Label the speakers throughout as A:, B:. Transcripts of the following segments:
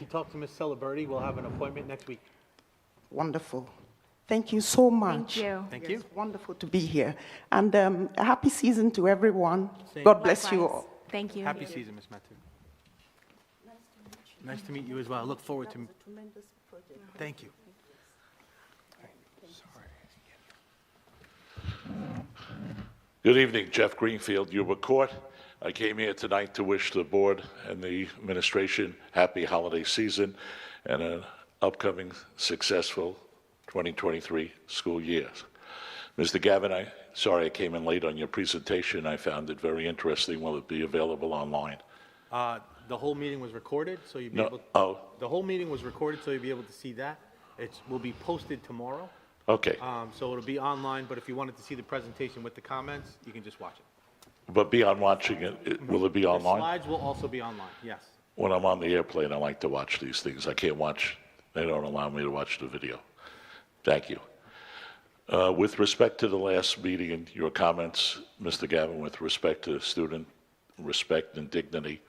A: talk to Ms. Celebrity. We'll have an appointment next week.
B: Wonderful. Thank you so much.
C: Thank you.
A: Thank you.
B: It's wonderful to be here. And um, a happy season to everyone.
A: Same.
B: God bless you
C: Likewise.
B: all.
C: Thank you.
A: Happy season, Ms. Matu. Nice to meet you as well. I look forward to. Thank you.
D: Good evening, Jeff Greenfield, Yuba Court. I came here tonight to wish the board and the administration happy holiday season and an upcoming successful 2023 school year. Mr. Gavin, I, sorry I came in late on your presentation. I found it very interesting. Will it be available online?
A: Uh, The whole meeting was recorded, so you'll be
D: No,
A: able.
D: oh.
A: The whole meeting was recorded, so you'll be able to see that. It's, will be posted tomorrow,
D: Okay,
A: um, so it'll be online, but if you wanted to see the presentation with the comments, you can just watch it.
D: but beyond watching it, it- will it be
A: The
D: online?
A: slides will also be online, yes.
D: When I'm on the airplane, I like to watch these things. I can't watch, they don't allow me to watch the video. Thank you. Uh, With respect to the last meeting and your comments, Mr. Gavin, with respect to student respect and dignity,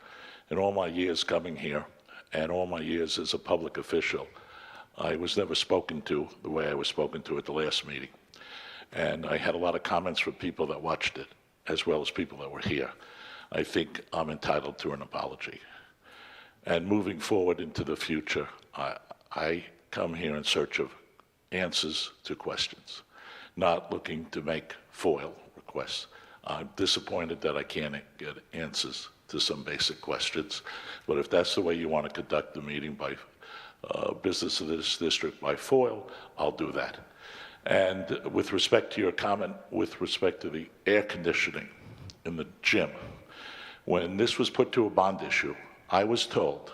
D: in all my years coming here and all my years as a public official, I was never spoken to the way I was spoken to at the last meeting. And I had a lot of comments from people that watched it, as well as people that were here. I think I'm entitled to an apology. And moving forward into the future, I, I come here in search of answers to questions, not looking to make FOIL requests. I'm disappointed that I can't get answers to some basic questions, but if that's the way you want to conduct the meeting by uh, business of this district by FOIL, I'll do that. And with respect to your comment, with respect to the air conditioning in the gym, when this was put to a bond issue, I was told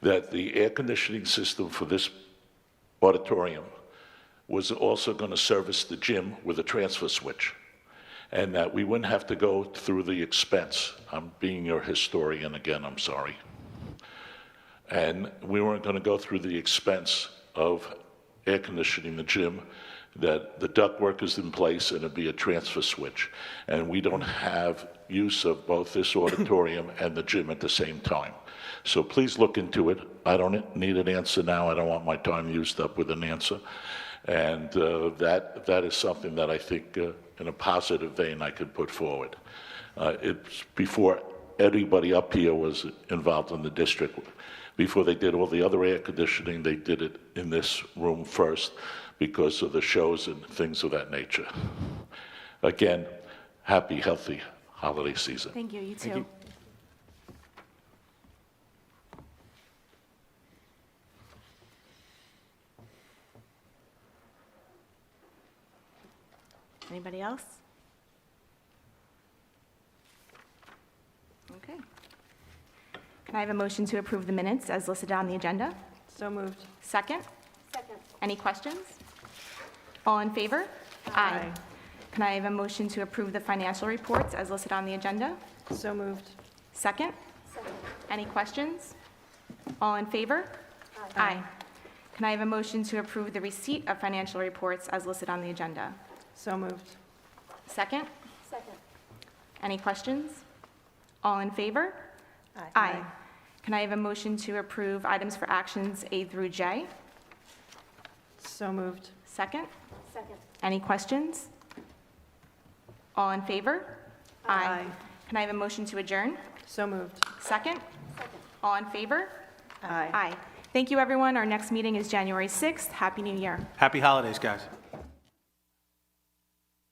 D: that the air conditioning system for this auditorium was also going to service the gym with a transfer switch, and that we wouldn't have to go through the expense. I'm being your historian again, I'm sorry. And we weren't going to go through the expense of air conditioning the gym, that the ductwork is in place and it'd be a transfer switch. And we don't have use of both this auditorium and the gym at the same time. So please look into it. I don't need an answer now. I don't want my time used up with an answer. And uh, that, that is something that I think uh, in a positive vein I could put forward. Uh, It's before everybody up here was involved in the district. Before they did all the other air conditioning, they did it in this room first because of the shows and things of that nature. Again, happy, healthy holiday season.
C: Thank you, you too. Anybody else? Okay. Can I have a motion to approve the minutes as listed on the agenda?
E: So moved.
C: Second? Second. Any questions? All in favor?
E: Aye.
C: Can I have a motion to approve the financial reports as listed on the agenda?
E: So moved.
C: Second? Any questions? All in favor? Aye. Can I have a motion to approve the receipt of financial reports as listed on the agenda?
E: So moved.
C: Second? Second. Any questions? All in favor?
E: Aye.
C: Can I have a motion to approve items for actions A through J?
E: So moved.
C: Second? Second. Any questions? All in favor?
E: Aye.
C: Can I have a motion to adjourn?
E: So moved.
C: Second? Second. All in favor?
E: Aye.
C: Aye. Thank you, everyone. Our next meeting is January 6th. Happy New Year.
A: Happy holidays, guys.